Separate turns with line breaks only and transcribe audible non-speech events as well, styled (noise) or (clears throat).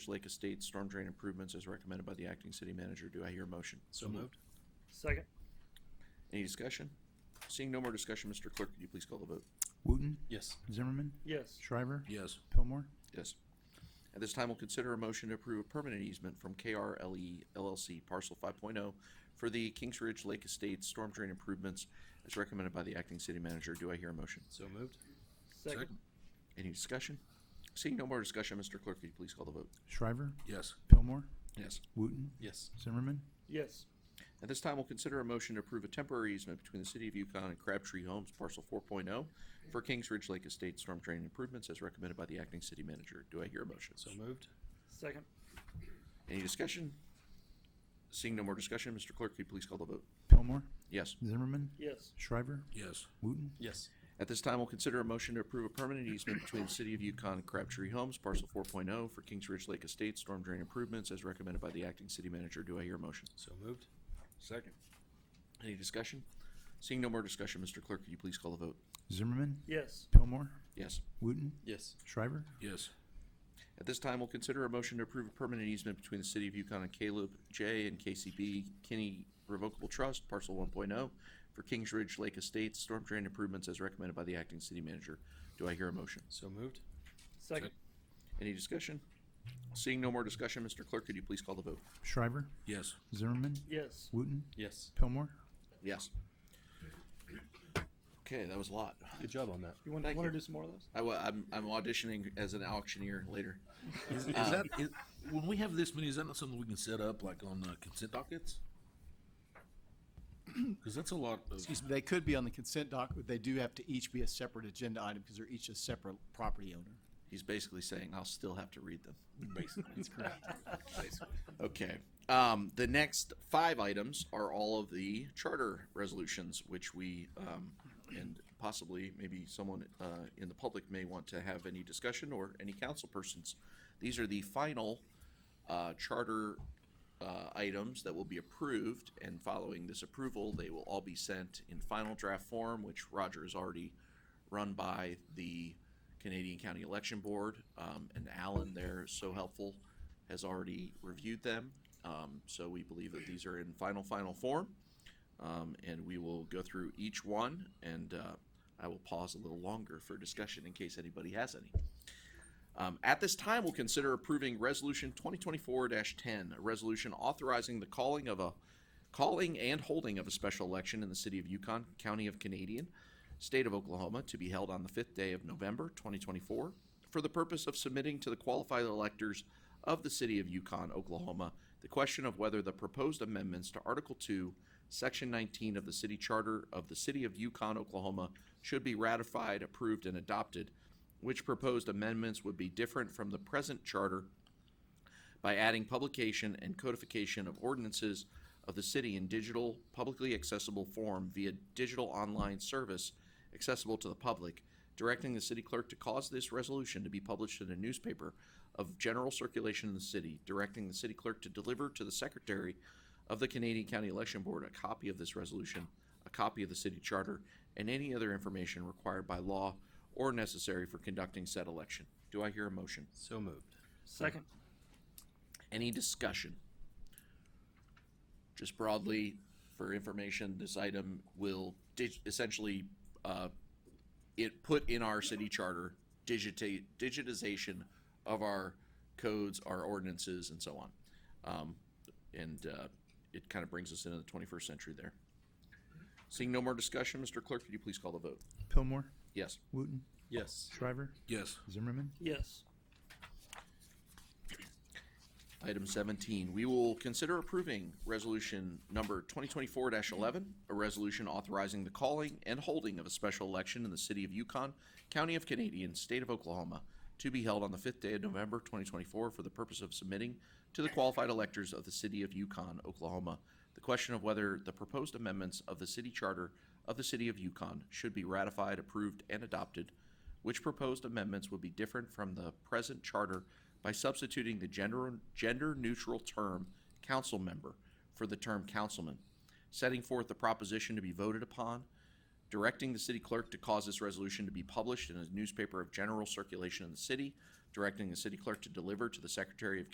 Lake Estates storm drain improvements as recommended by the acting city manager. Do I hear a motion?
So
Mm-hmm.
moved.
Second.
Any discussion? Seeing no more discussion, Mr. Clerk, could you please call the vote?
Wooten,
Yes.
Zimmerman,
Yes.
Shriver,
Yes.
Pillmore,
Yes. At this time, we'll consider a motion to approve a permanent easement from KRLE LLC parcel five oh for the Kings Ridge Lake Estates storm drain improvements as recommended by the acting city manager. Do I hear a motion?
So moved.
Second.
Any discussion? Seeing no more discussion, Mr. Clerk, could you please call the vote?
Shriver,
Yes.
Pillmore,
Yes.
Wooten,
Yes.
Zimmerman,
Yes.
At this time, we'll consider a motion to approve a temporary easement between the City of Yukon and Crabtree Homes, parcel four oh, for Kings Ridge Lake Estate storm drain improvements as recommended by the acting city manager. Do I hear a motion?
So moved.
Second.
Any discussion? Seeing no more discussion, Mr. Clerk, could you please call the vote?
Pillmore,
Yes.
Zimmerman,
Yes.
Shriver,
Yes.
Wooten,
Yes.
At this time, we'll consider a motion to approve a permanent easement between the City of Yukon and Crabtree Homes, parcel four oh, for Kings Ridge Lake Estate storm drain improvements as recommended by the acting city manager. Do I hear a motion?
So moved.
Second. Any discussion? Seeing no more discussion, Mr. Clerk, could you please call the vote?
Zimmerman,
Yes.
Pillmore,
Yes.
Wooten,
Yes.
Shriver,
Yes.
At this time, we'll consider a motion to approve a permanent easement between the City of Yukon and Caleb J. and KCB Kinney Revocable Trust, parcel 1.0, for Kings Ridge Lake Estates storm drain improvements as recommended by the acting city manager. Do I hear a motion?
So moved.
Second.
Any discussion? Seeing no more discussion, Mr. Clerk, could you please call the vote?
Shriver,
Yes.
Zimmerman,
Yes.
Wooten,
Yes.
Pillmore,
Yes. Okay, that was a lot.
Good job on that.
You want,
Thank
want
you.
to do some more of those?
I, wa- I'm, I'm auditioning as an auctioneer later.
Is, is that is, when we have this many? Is that not something we can set up like on uh, consent dockets? (clears throat) Because that's a lot. Of,
Excuse me, they could be on the consent doc, but they do have to each be a separate agenda item because they're each a separate property owner.
He's basically saying I'll still have to read them.
basically, that's correct.
Okay. Um, the next five items are all of the charter resolutions, which we, um, and possibly maybe someone, uh, in the public may want to have any discussion or any council persons. These are the final, uh, charter, uh, items that will be approved, and following this approval, they will all be sent in final draft form, which Roger has already run by the Canadian County Election Board, um, and Alan there is so helpful, has already reviewed them. Um, so we believe that these are in final, final form. Um, and we will go through each one and, uh, I will pause a little longer for discussion in case anybody has any. Um, at this time, we'll consider approving Resolution 2024-10, a resolution authorizing the calling of a calling and holding of a special election in the city of Yukon, County of Canadian, State of Oklahoma, to be held on the fifth day of November 2024, for the purpose of submitting to the qualified electors of the city of Yukon, Oklahoma, the question of whether the proposed amendments to Article 2, Section 19 of the city charter of the city of Yukon, Oklahoma, should be ratified, approved, and adopted which proposed amendments would be different from the present charter by adding publication and codification of ordinances of the city in digital, publicly accessible form via digital online service accessible to the public, directing the city clerk to cause this resolution to be published in a newspaper of general circulation in the city, directing the city clerk to deliver to the secretary of the Canadian County Election Board a copy of this resolution, a copy of the city charter, and any other information required by law or necessary for conducting said election. Do I hear a motion?
So moved.
Second.
Any discussion? Just broadly, for information, this item will dig- essentially, uh, it put in our city charter digita- digitization of our codes, our ordinances, and so on. Um, and, uh, it kind of brings us into the twenty-first century there. Seeing no more discussion, Mr. Clerk, could you please call the vote?
Pillmore,
Yes.
Wooten,
Yes.
Shriver,
yes.
Zimmerman,
Yes.
Item seventeen, we will consider approving resolution number twenty twenty-four eleven, a resolution authorizing the calling and holding of a special election in the city of Yukon, county of Canadian, state of Oklahoma, to be held on the fifth day of November twenty twenty-four for the purpose of submitting to the qualified electors of the city of Yukon, Oklahoma, the question of whether the proposed amendments of the city charter of the city of Yukon should be ratified, approved, and adopted which proposed amendments would be different from the present charter by substituting the gender, gender-neutral term council member for the term councilman, setting forth the proposition to be voted upon, directing the city clerk to cause this resolution to be published in a newspaper of general circulation in the city, directing the city clerk to deliver to the Secretary of